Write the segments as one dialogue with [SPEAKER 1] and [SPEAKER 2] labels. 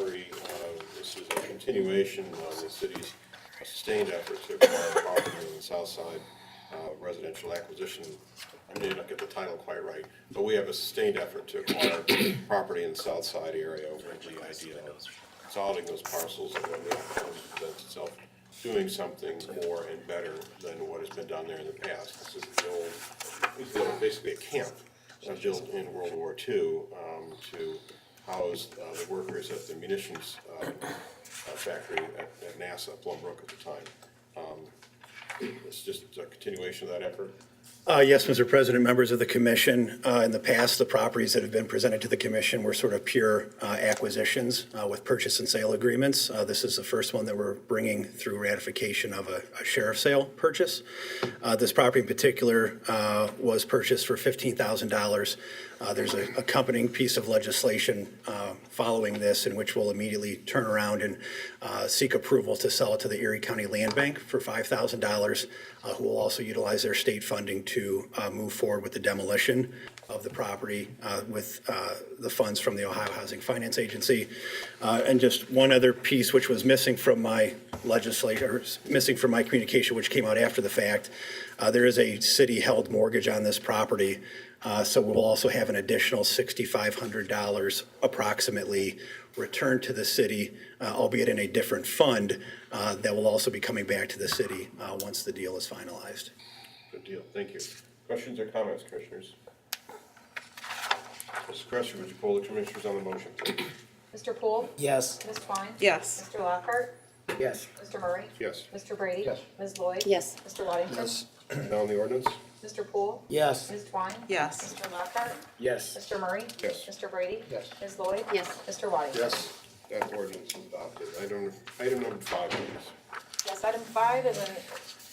[SPEAKER 1] uh, continuation of the city's sustained effort to acquire property on the south side uh, residential acquisition. I may not get the title quite right, but we have a sustained effort to acquire property in the south side area with the idea of consolidating those parcels and when the opportunity presents itself, doing something more and better than what has been done there in the past. This is the old, this is the old- basically a camp uh, built in World War II um, to house uh, the workers at the munitions uh, uh, factory at at NASA, Plumbrook at the time. Um, It's just a continuation of that effort.
[SPEAKER 2] Uh, Yes, Mr. President, members of the commission, uh, in the past, the properties that have been presented to the commission were sort of pure uh, acquisitions uh, with purchase and sale agreements. Uh, This is the first one that we're bringing through ratification of a a sheriff's sale purchase. Uh, This property in particular uh, was purchased for $15,000. Uh, There's an accompanying piece of legislation uh, following this in which we'll immediately turn around and uh, seek approval to sell it to the Erie County Land Bank for $5,000, uh, who will also utilize their state funding to uh, move forward with the demolition of the property uh, with uh, the funds from the Ohio Housing Finance Agency. Uh, And just one other piece which was missing from my legislature, or s- missing from my communication, which came out after the fact, uh, there is a city-held mortgage on this property. Uh, So we'll also have an additional $6,500 approximately returned to the city, uh, albeit in a different fund, uh, that will also be coming back to the city uh, once the deal is finalized.
[SPEAKER 1] Good deal, thank you. Questions or comments, commissioners? Mrs. Cresser, would you poll the commissioners on the motion, please?
[SPEAKER 3] Mr. Poole?
[SPEAKER 4] Yes.
[SPEAKER 3] Ms. Twine?
[SPEAKER 5] Yes.
[SPEAKER 3] Mr. Lockhart?
[SPEAKER 4] Yes.
[SPEAKER 3] Mr. Murray?
[SPEAKER 1] Yes.
[SPEAKER 3] Mr. Brady?
[SPEAKER 4] Yes.
[SPEAKER 3] Ms. Lloyd?
[SPEAKER 5] Yes.
[SPEAKER 3] Mr. Waddington?
[SPEAKER 1] Now on the ordinance?
[SPEAKER 3] Mr. Poole?
[SPEAKER 4] Yes.
[SPEAKER 3] Ms. Twine?
[SPEAKER 5] Yes.
[SPEAKER 3] Mr. Lockhart?
[SPEAKER 4] Yes.
[SPEAKER 3] Mr. Murray?
[SPEAKER 1] Yes.
[SPEAKER 3] Mr. Brady?
[SPEAKER 4] Yes.
[SPEAKER 3] Ms. Lloyd?
[SPEAKER 5] Yes.
[SPEAKER 3] Mr. Waddington?
[SPEAKER 1] That ordinance is adopted. Item, item number five, please.
[SPEAKER 3] Yes, item five is an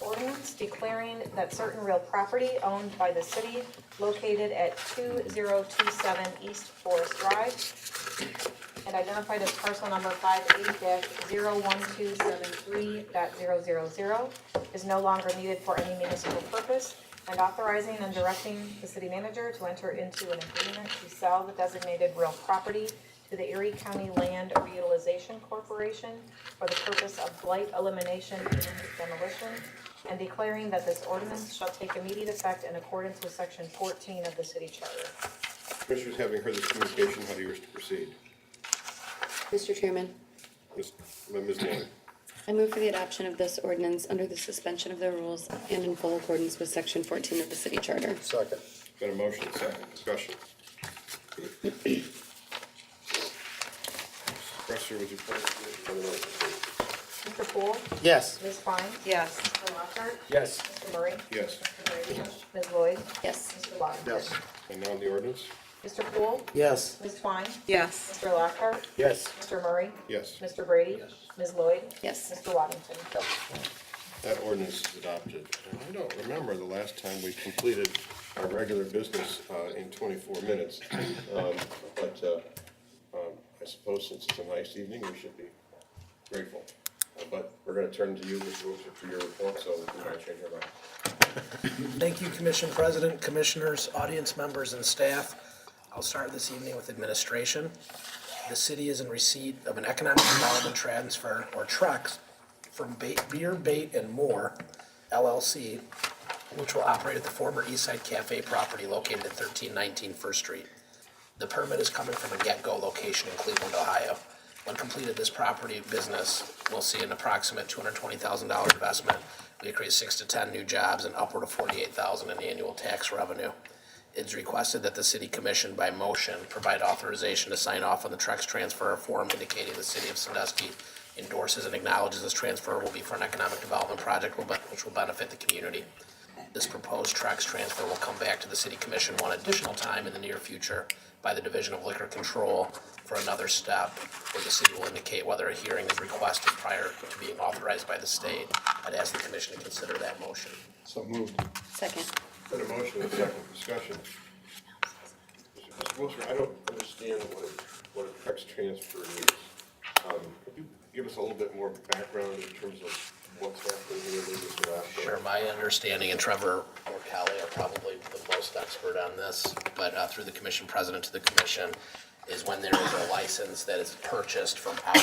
[SPEAKER 3] ordinance declaring that certain real property owned by the city located at two zero two seven East Forest Drive and identified as parcel number five eight dash zero one two seven three dot zero zero zero is no longer needed for any municipal purpose and authorizing and directing the city manager to enter into an agreement to sell the designated real property to the Erie County Land Reutilization Corporation for the purpose of blight elimination and demolition, and declaring that this ordinance shall take immediate effect in accordance with section fourteen of the city charter.
[SPEAKER 1] Commissioners, having heard this communication, how do you wish to proceed?
[SPEAKER 6] Mr. Chairman,
[SPEAKER 1] Ms. Ms. Lloyd?
[SPEAKER 6] I move for the adoption of this ordinance under the suspension of the rules and in full accordance with section fourteen of the city charter.
[SPEAKER 4] Second.
[SPEAKER 1] Got a motion, second discussion. Presser, would you please on the motion, please?
[SPEAKER 3] Mr. Poole?
[SPEAKER 4] Yes.
[SPEAKER 3] Ms. Fine?
[SPEAKER 5] Yes.
[SPEAKER 3] Mr. Lockhart?
[SPEAKER 4] Yes.
[SPEAKER 3] Mr. Murray?
[SPEAKER 1] Yes.
[SPEAKER 3] Mr. Brady? Ms. Lloyd?
[SPEAKER 6] Yes.
[SPEAKER 3] Mr. Waddington?
[SPEAKER 1] And now the ordinance?
[SPEAKER 3] Mr. Poole?
[SPEAKER 4] Yes.
[SPEAKER 3] Ms. Twine?
[SPEAKER 5] Yes.
[SPEAKER 3] Mr. Lockhart?
[SPEAKER 4] Yes.
[SPEAKER 3] Mr. Murray?
[SPEAKER 1] Yes.
[SPEAKER 3] Mr. Brady? Ms. Lloyd?
[SPEAKER 6] Yes.
[SPEAKER 3] Mr. Waddington?
[SPEAKER 1] That ordinance is adopted. And I don't remember the last time we completed our regular business uh, in 24 minutes. Um, But uh, um, I suppose since it's a nice evening, we should be grateful. Uh, But we're going to turn to you, Mr. Wilson, for your report, so we're going to change our mind.
[SPEAKER 7] Thank you, Commission President, Commissioners, audience members, and staff. I'll start this evening with administration. The city is in receipt of an economic development transfer, or TREX, from Ba- Beer, Bait, and More LLC, which will operate at the former Eastside Cafe property located at 1319 First Street. The permit is coming from a get-go location in Cleveland, Ohio. When completed, this property business will see an approximate two hundred twenty thousand dollar investment. We create six to ten new jobs and upward of forty-eight thousand in annual tax revenue. It's requested that the city commission by motion provide authorization to sign off on the Trex transfer form indicating the city of Sandusky endorses and acknowledges this transfer will be for an economic development project will be- which will benefit the community. This proposed Trex transfer will come back to the city commission one additional time in the near future by the Division of Liquor Control for another step, where the city will indicate whether a hearing is requested prior to being authorized by the state. I'd ask the commission to consider that motion.
[SPEAKER 1] So moved.
[SPEAKER 6] Second.
[SPEAKER 1] Got a motion and a second discussion. Mr. Wilson, I don't understand what a, what a tax transfer is. Um, Could you give us a little bit more background in terms of what's happening here, what is going on?
[SPEAKER 7] Sure, my understanding, and Trevor or Kelly are probably the most expert on this, but uh, through the commission president to the commission, is when there is a license that is purchased from out